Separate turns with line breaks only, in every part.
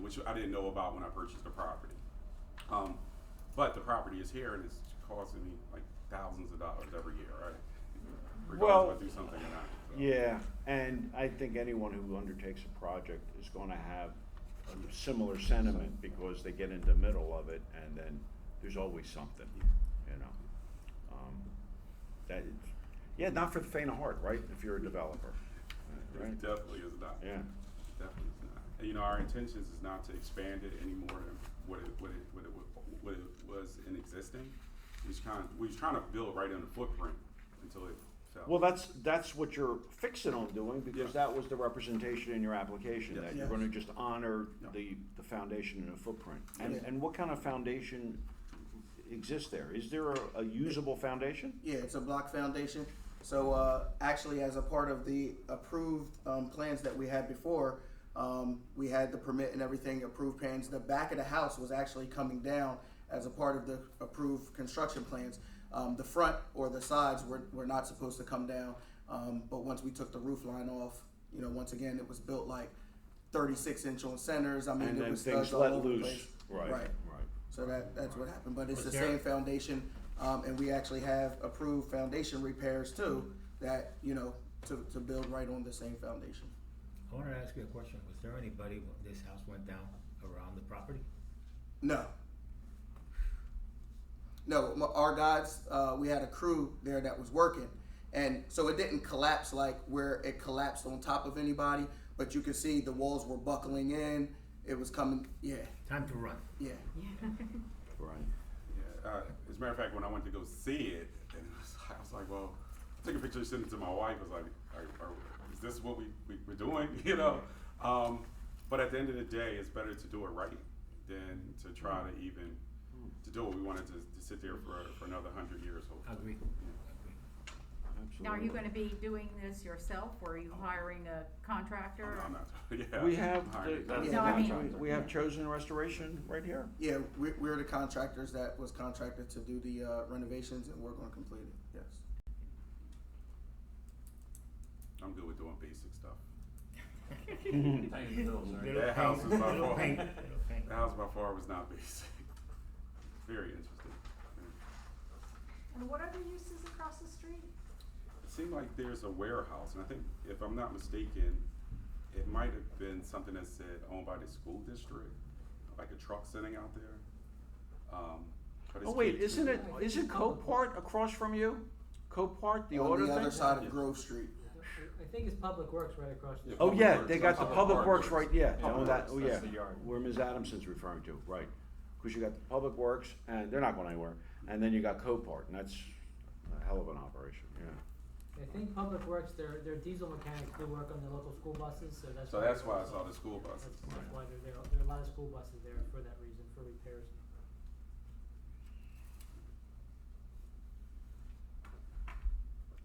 which I didn't know about when I purchased the property. Um, but the property is here and it's costing me like thousands of dollars every year, right? Regardless
Well,
if I do something or not. so.
Yeah, and I think anyone who undertakes a project is gonna have a similar sentiment because they get in the middle of it and then there's always something, you know? Um, That is, yeah, not for the faint of heart, right, if you're a developer, right?
It definitely is not.
Yeah,
Definitely is not. And, you know, our intentions is not to expand it any more than what it, what it, what it, wa- what it was in existing. We was kind, we was trying to build right in the footprint until it fell.
well, that's, that's what you're fixing on doing because
Yeah.
that was the representation in your application, that you're
Yes.
gonna just honor
Yeah.
the, the foundation and the footprint. And,
Yeah.
and what kind of foundation exists there? Is there a, a usable foundation?
Yeah, it's a block foundation. So uh, actually, as a part of the approved um, plans that we had before, um, we had the permit and everything, approved plans. The back of the house was actually coming down as a part of the approved construction plans. Um, the front or the sides were, were not supposed to come down. Um, but once we took the roof line off, you know, once again, it was built like 36 inch on centers. I mean,
And
it
then
was
things
studs all
let
over the
loose,
place.
right, right.
So that, that's what happened, but it's the
Was there-
same foundation, um, and we actually have approved foundation repairs too, that, you know, to, to build right on the same foundation.
I wanted to ask you a question. Was there anybody when this house went down around the property?
No. No, m- our guys, uh, we had a crew there that was working, and so it didn't collapse like where it collapsed on top of anybody, but you could see the walls were buckling in, it was coming, yeah,
Time to run.
yeah.
Right.
Yeah, uh, as a matter of fact, when I went to go see it, and I was, I was like, well, I took a picture, sent it to my wife. I was like, are, are, is this what we, we, we're doing? You know? Um, but at the end of the day, it's better to do it right than to try to even to do it. We wanted to, to sit there for, for another hundred years, hopefully.
Agree. Agree.
Absolutely.
Now, are you gonna be doing this yourself, or are you hiring a contractor?
I'm not, yeah.
We have,
I'm hired.
the-
No, I mean-
we have chosen restoration right here.
Yeah, we, we're the contractors that was contracted to do the uh, renovations, and we're gonna complete it, yes.
I'm good with doing basic stuff.
Little
That house
paint,
is my
little
fault.
paint, little paint.
The house by far was not basic. Very interesting.
And what other uses across the street?
It seemed like there's a warehouse, and I think, if I'm not mistaken, it might have been something that said owned by the school district, like a truck sitting out there. Um, but
Oh,
it's
wait,
caged
isn't
in.
it, isn't Copart across from you? Copart, the
on
auto
the other
thing?
side of Grove Street.
I think it's Public Works right across the
Yeah,
street.
Oh, yeah, they
Public
got the
Works.
Public Works right, yeah,
Public
oh, that,
Works,
oh, yeah.
that's the yard.
Where Ms. Adamson's referring to, right. Cause you got the Public Works, and they're not going anywhere, and then you got Copart, and that's a hell of an operation, yeah.
I think Public Works, their, their diesel mechanics do work on the local school buses, so that's.
So
why-
that's why I saw the school
That's,
buses.
that's why they're there, there are a lot of school buses there for that reason, for repairs.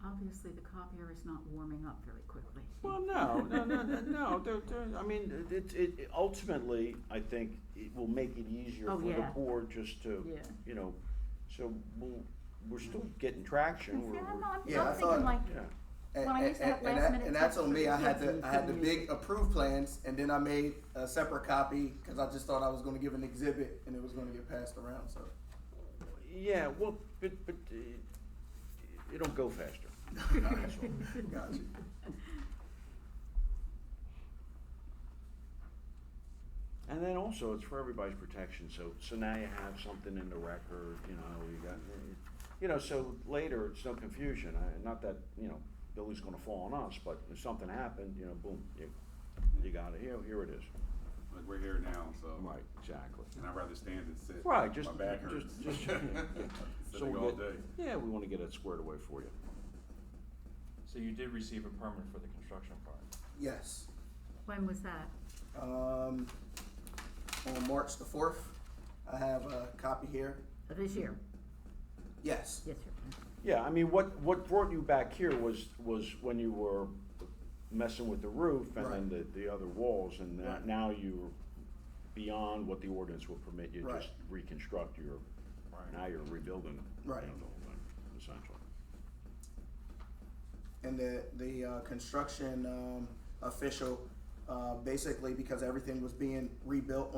Obviously, the copier is not warming up very quickly.
Well, no, no, no, no, no, they're, they're, I mean, it, it, it- ultimately, I think it will make it easier
Oh,
for the
yeah.
board just to,
Yeah.
you know, so we'll, we're still getting traction, we're,
See, I'm
we're,
not,
Yeah, I
I'm
thought-
thinking like,
yeah.
And,
Well, I
and-
used to have
and- and
last
that-
minute
and that's on
texts
me. I
for
had
kids
the
and
I had the
couldn't use
big approved plans, and then I made a separate copy because I just thought I was going to give an exhibit, and it was going to get passed around. So
Yeah, well, but, but, uh, it'll go faster.
got you.
And then also, it's for everybody's protection, so, so now you have something in the record, you know, you got, you know, so later, it's no confusion, I, not that, you know, Billy's gonna fall on us, but if something happened, you know, boom, you, you got it, here, here it is.
Like, we're here now, so.
Exactly.
And I'd rather stand and sit.
Right, just,
My back hurts.
just, just, yeah, yeah. So
Sitting
we'll
all
get-
day.
Yeah, we wanna get it squared away for you.
So you did receive a permit for the construction part?
Yes.
when was that?
Um, on March the fourth, I have a copy here.
Uh, This year?
Yes.
Yes, sir.
Yeah, I mean, what, what brought you back here was, was when you were messing with the roof and then the, the other walls, and that-
Right.
now you're beyond what the ordinance will permit you,
Right.
just reconstruct your, now you're rebuilding. you
Right.
know, the whole thing, Essentially.
and the the uh, construction um, official uh, basically because everything was being rebuilt on